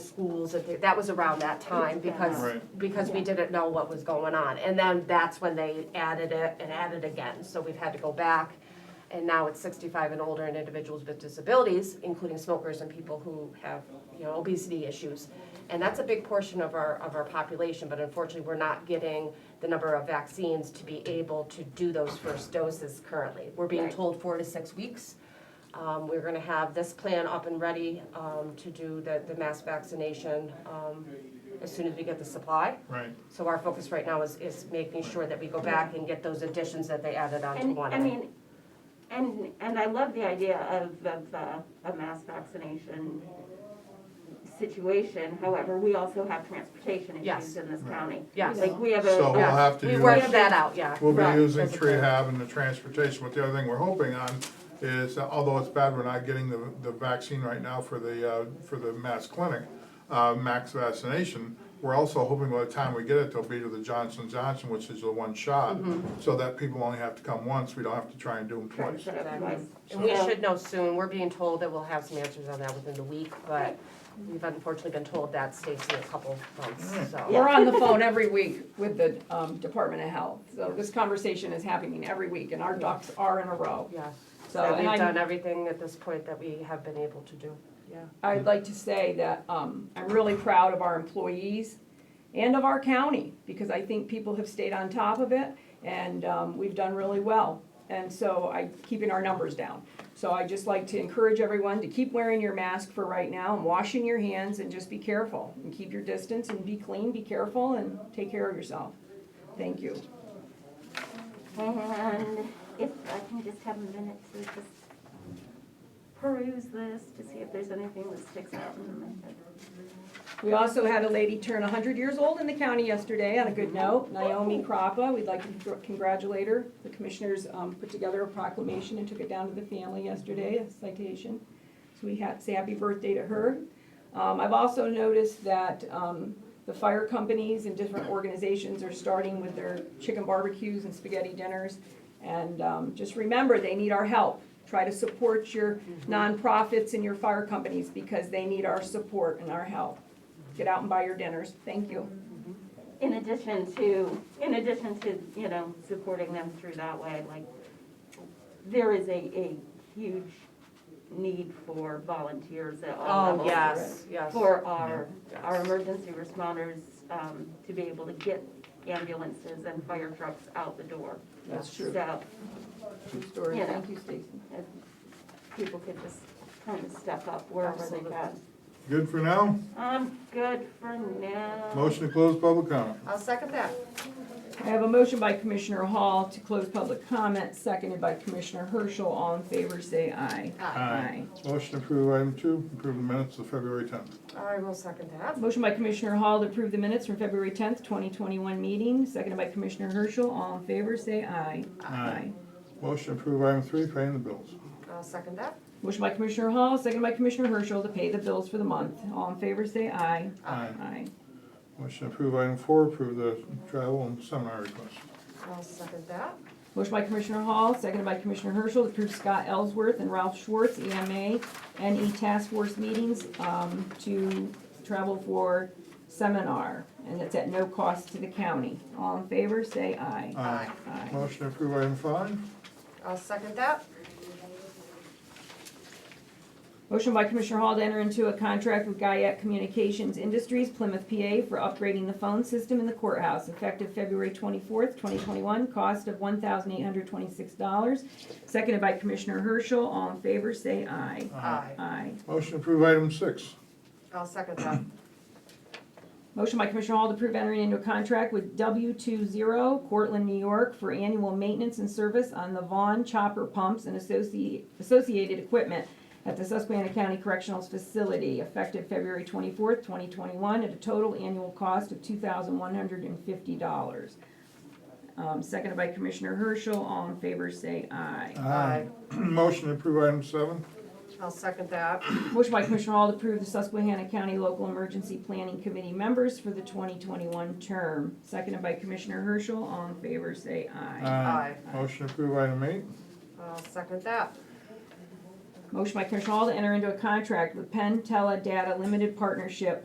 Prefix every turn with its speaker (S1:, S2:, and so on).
S1: schools, and that was around that time, because,
S2: Right.
S1: because we didn't know what was going on. And then that's when they added it and added again, so we've had to go back, and now it's sixty-five and older and individuals with disabilities, including smokers and people who have, you know, obesity issues. And that's a big portion of our, of our population, but unfortunately, we're not getting the number of vaccines to be able to do those first doses currently. We're being
S3: Right.
S1: told four to six weeks. Um, we're gonna have this plan up and ready, um, to do the, the mass vaccination, um, as soon as we get the supply.
S2: Right,
S1: So our focus right now is, is making sure that we go back and get those additions that they added on to
S3: And,
S1: one.
S3: I mean, and, and I love the idea of, of uh, a mass vaccination situation, however, we also have transportation
S1: Yes.
S3: issues in this county.
S1: Yes.
S3: Like, we have a.
S2: so we'll
S1: Yeah.
S2: have to
S1: We
S2: use.
S1: worked that out, yeah.
S2: We'll
S1: Right.
S2: be using
S1: That's a
S2: tree
S1: plan.
S2: hab and the transportation, but the other thing we're hoping on is, although it's bad, we're not getting the, the vaccine right now for the, uh, for the mass clinic, uh, max vaccination, we're also hoping by the time we get it, they'll be to the Johnson Johnson, which is the one shot,
S1: Mm-hmm.
S2: so that people only have to come once, we don't have to try and do them
S3: try to
S2: twice.
S3: set up
S1: Exactly.
S3: device.
S1: And we
S3: So-
S1: should know soon, we're being told that we'll have some answers on that within the week, but we've unfortunately been told that stays in a couple
S2: Hmm.
S1: months, so.
S4: We're on the phone every week with the um, Department of Health, so this conversation is happening every week, and our ducks are in a row.
S1: Yes,
S4: So,
S1: that
S4: and
S1: we've done
S4: I,
S1: everything at this point that we have been able to do, yeah.
S4: I'd like to say that um, I'm really proud of our employees and of our county, because I think people have stayed on top of it, and um, we've done really well. And so I, keeping our numbers down. So I just like to encourage everyone to keep wearing your mask for right now, and washing your hands, and just be careful, and keep your distance, and be clean, be careful, and take care of yourself. Thank you.
S3: And if I can just have a minute to just peruse this, to see if there's anything that sticks out in my head.
S4: We also had a lady turn hundred years old in the county yesterday, on a good note, Naomi Crappa, we'd like to congratulate her. The commissioners, um, put together a proclamation and took it down to the family yesterday, a citation. So we had, say happy birthday to her. Um, I've also noticed that, um, the fire companies and different organizations are starting with their chicken barbecues and spaghetti dinners. And, um, just remember, they need our help. Try to support your nonprofits and your fire companies because they need our support and our help. Get out and buy your dinners. Thank you.
S3: In addition to, in addition to, you know, supporting them through that way, like, there is a, a huge need for volunteers at all
S1: Oh,
S3: levels.
S1: yes, yes.
S3: For our,
S1: Yeah.
S3: our emergency responders, um, to be able to get ambulances and fire trucks out the door.
S4: That's
S3: So,
S4: True story.
S3: Yeah.
S4: Thank you, Stacy.
S3: if people could just kind of step up wherever they
S1: Absolutely.
S3: can.
S2: Good for now?
S3: I'm good for now.
S2: Motion to close public comment.
S1: I'll second that.
S4: I have a motion by Commissioner Hall to close public comment, seconded by Commissioner Herschel. All in favor, say aye.
S2: Aye. Motion to approve item two, approve the minutes of February tenth.
S1: I will second that.
S4: Motion by Commissioner Hall to approve the minutes from February tenth, twenty twenty-one meeting, seconded by Commissioner Herschel. All in favor, say aye.
S2: Aye. Motion to approve item three, paying the bills.
S1: I'll second that.
S4: Motion by Commissioner Hall, seconded by Commissioner Herschel to pay the bills for the month. All in favor, say aye.
S2: Aye.
S4: Aye.
S2: Motion to approve item four, approve the travel and seminar request.
S1: I'll second that.
S4: Motion by Commissioner Hall, seconded by Commissioner Herschel, to approve Scott Ellsworth and Ralph Schwartz, E EMA, NE E Task Force meetings, um, to travel for seminar, and it's at no cost to the county. All in favor, say aye.
S2: Aye.
S4: Aye.
S2: Motion to approve item five.
S1: I'll second that.
S4: Motion by Commissioner Hall to enter into a contract with Guyette Communications Industries Plymouth, PA, for upgrading the phone system in the courthouse, effective February twenty-fourth, twenty twenty-one, cost of one thousand eight hundred twenty-six dollars, seconded by Commissioner Herschel. All in favor, say aye.
S1: Aye.
S4: Aye.
S2: Motion to approve item six.
S1: I'll second that.
S4: Motion by Commissioner Hall to approve entering into a contract with W two zero Cortland, New York for annual maintenance and service on the Vaughn chopper pumps and associ- associated equipment at the Susquehanna County Correctional Facility effective February twenty-fourth, twenty twenty-one, at a total annual cost of two thousand one hundred and fifty dollars. Um, seconded by Commissioner Herschel, all in favor say aye.
S1: Aye.
S2: Motion to approve item seven.
S1: I'll second that.
S4: Motion by Commissioner Hall to approve the Susquehanna County Local Emergency Planning Committee members for the 2021 term. Seconded by Commissioner Herschel. All in favor, say aye.
S1: Aye.
S2: Motion to approve item eight.
S1: I'll second that.
S4: Motion by Commissioner Hall to enter into a contract with Penn Tele Data Limited Partnership